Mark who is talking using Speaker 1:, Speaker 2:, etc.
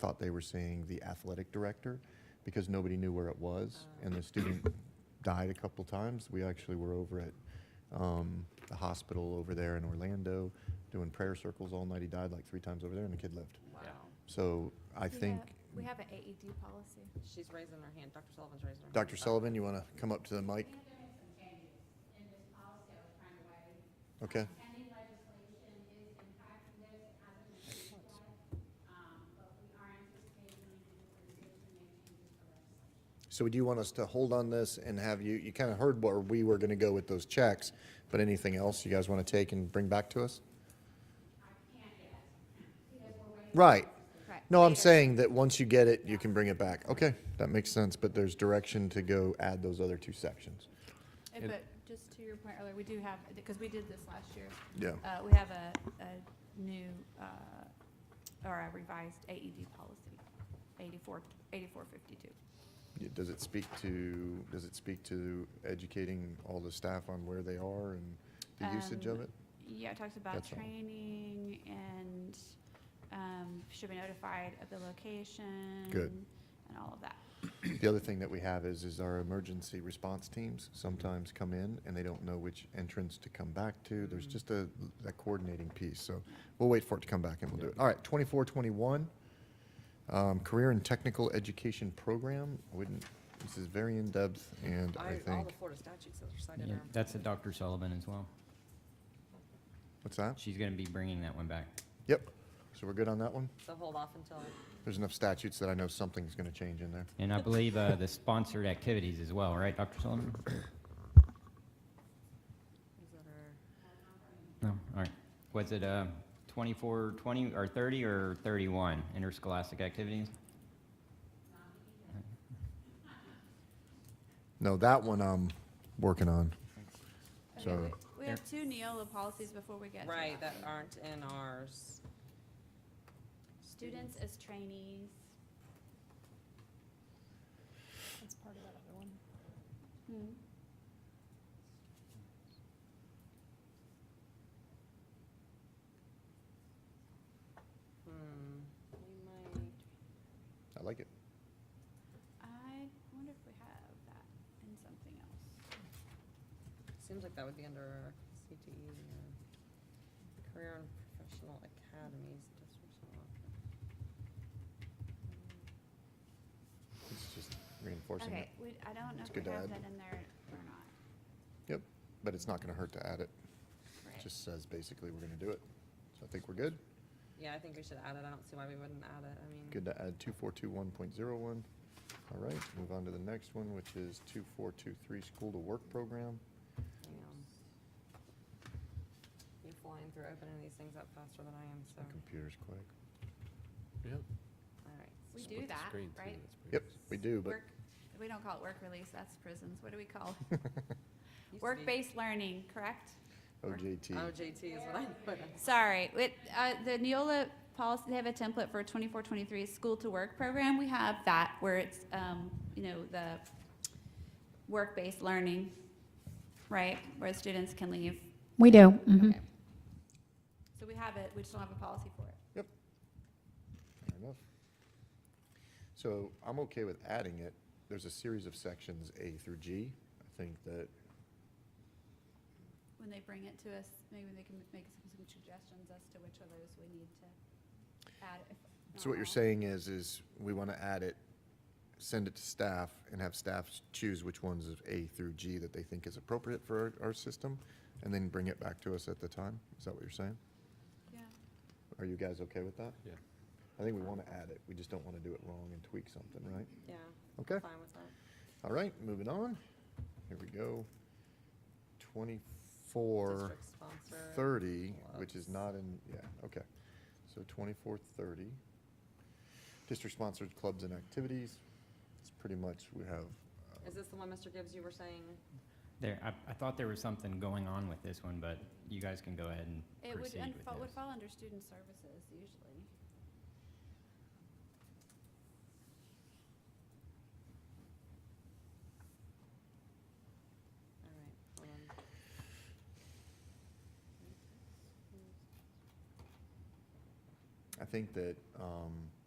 Speaker 1: thought they were seeing the athletic director because nobody knew where it was, and the student died a couple times. We actually were over at um, the hospital over there in Orlando doing prayer circles all night. He died like three times over there, and the kid lived.
Speaker 2: Wow.
Speaker 3: Yeah.
Speaker 1: So I
Speaker 4: We
Speaker 1: think,
Speaker 4: have- We have an AED policy.
Speaker 2: She's raising her hand. Dr. Sullivan's raising her hand.
Speaker 1: Dr. Sullivan, you want to come up to the mic?
Speaker 5: think there are some changes in this policy I was trying to write.
Speaker 1: Okay.
Speaker 5: Pending legislation is impacting this, it hasn't been issued yet, um, but we are anticipating making the organization make changes for legislation.
Speaker 1: So do you want us to hold on this and have you, you kind of heard where we were going to go with those checks, but anything else you guys want to take and bring back to us? Right.
Speaker 4: Right.
Speaker 1: No, I'm saying that once you get it, you can bring it back. Okay, that makes sense, but there's direction to go add those other two sections.
Speaker 4: And- But just to your point earlier, we do have, because we did this last year,
Speaker 1: Yeah.
Speaker 4: uh, we have a, a new, uh, or a revised AED policy, 84, 8452.
Speaker 1: Yeah, Does it speak to, does it speak to educating all the staff on where they are and the usage of
Speaker 4: Um,
Speaker 1: it?
Speaker 4: Yeah, it talks about
Speaker 1: That's all.
Speaker 4: training and um, should be notified of the location. And all of that.
Speaker 1: The other thing that we have is, is our emergency response teams sometimes come in and they don't know which entrance to come back to. There's just a, that coordinating piece, so we'll wait for it to come back and we'll do it. All right, twenty-four, twenty-one, um, career and technical education program. I wouldn't, this is very in-depth and I
Speaker 2: I- All the
Speaker 1: think,
Speaker 2: Florida statutes are cited
Speaker 3: Yeah,
Speaker 2: there.
Speaker 3: That's a Dr. Sullivan as well.
Speaker 1: what's that?
Speaker 3: She's gonna be bringing that one back.
Speaker 1: Yep, so we're good on that one?
Speaker 2: So hold off until,
Speaker 1: There's enough statutes that I know something's gonna change in there.
Speaker 3: And I believe uh, the sponsored activities as well, right, Dr. Sullivan?
Speaker 2: is that her?
Speaker 3: No, all right. Was it uh, 24, 20, or 30, or 31 interscholastic activities?
Speaker 1: No, that one I'm working on.
Speaker 4: Okay,
Speaker 1: So-
Speaker 4: we- We have two Neola policies before we get to
Speaker 2: Right,
Speaker 4: that.
Speaker 2: that aren't in ours.
Speaker 4: Students as trainees.
Speaker 6: That's part of that other one.
Speaker 4: Hmm.
Speaker 2: Hmm, we might,
Speaker 1: I like it.
Speaker 4: I wonder if we have that in something else.
Speaker 2: seems like that would be under CTE, yeah. E Career and Professional Academies. districts and all.
Speaker 1: It's just reinforcing it,
Speaker 4: Okay, we, I don't know
Speaker 1: It's
Speaker 4: if
Speaker 1: good
Speaker 4: we
Speaker 1: to
Speaker 4: have
Speaker 1: add.
Speaker 4: that in there or not.
Speaker 1: but it's not gonna hurt to add it.
Speaker 4: Right.
Speaker 1: just says basically we're gonna do it. So I think we're good.
Speaker 2: Yeah, I think we should add it. I don't see why we wouldn't add it. I mean.
Speaker 1: Good to add two four two one point zero one. All right, move on to the next one, which is two four two three school to work program.
Speaker 2: Damn. You flying through opening these things up faster than I am, so,
Speaker 1: My computer's quick.
Speaker 2: all right.
Speaker 4: We do that, right?
Speaker 1: Yep, we do, but
Speaker 4: Work, we don't call it work release, that's prisons. What do we call it?
Speaker 2: Used to be
Speaker 4: Work-based learning, correct?
Speaker 2: Oh.
Speaker 1: OJT.
Speaker 2: OJT is what I put in.
Speaker 4: Sorry, with, uh, the Neola policy, they have a template for twenty-four, twenty-three school to work program. We have that where it's, um, you know, the work-based learning, right? Where students can leave.
Speaker 6: We do. mm-hmm.
Speaker 4: Okay. So we have it, we just don't have a policy for it.
Speaker 1: Fair enough. So I'm okay with adding it. There's a series of sections A through G. I think that,
Speaker 4: When they bring it to us, maybe they can make some some suggestions as to which of those we need to add. if
Speaker 1: so what
Speaker 4: not
Speaker 1: you're
Speaker 4: all.
Speaker 1: saying is, is we wanna add it, send it to staff and have staff choose which ones of A through G that they think is appropriate for our, our system and then bring it back to us at the time. Is that what you're saying?
Speaker 4: Yeah.
Speaker 1: Are you guys okay with that?
Speaker 7: Yeah.
Speaker 1: I think we want to add it, we just don't want to do it wrong and tweak something, right?
Speaker 2: Yeah,
Speaker 1: Okay,
Speaker 2: fine with that.
Speaker 1: all right, moving on. Here we go. Twenty-four
Speaker 2: District sponsor.
Speaker 1: thirty, which is
Speaker 2: plus.
Speaker 1: not in, yeah, okay. So twenty-four thirty. District-sponsored clubs and activities, it's pretty much, we have,
Speaker 2: Is this the one, Mr. Gibbs, you were saying?
Speaker 3: There, I, I thought there was something going on with this one, but you guys can go ahead and
Speaker 4: It would,
Speaker 3: proceed
Speaker 4: un-
Speaker 3: with
Speaker 4: fall- would
Speaker 3: this.
Speaker 4: fall under student services usually.
Speaker 2: All right, hold on.
Speaker 1: I think that, um,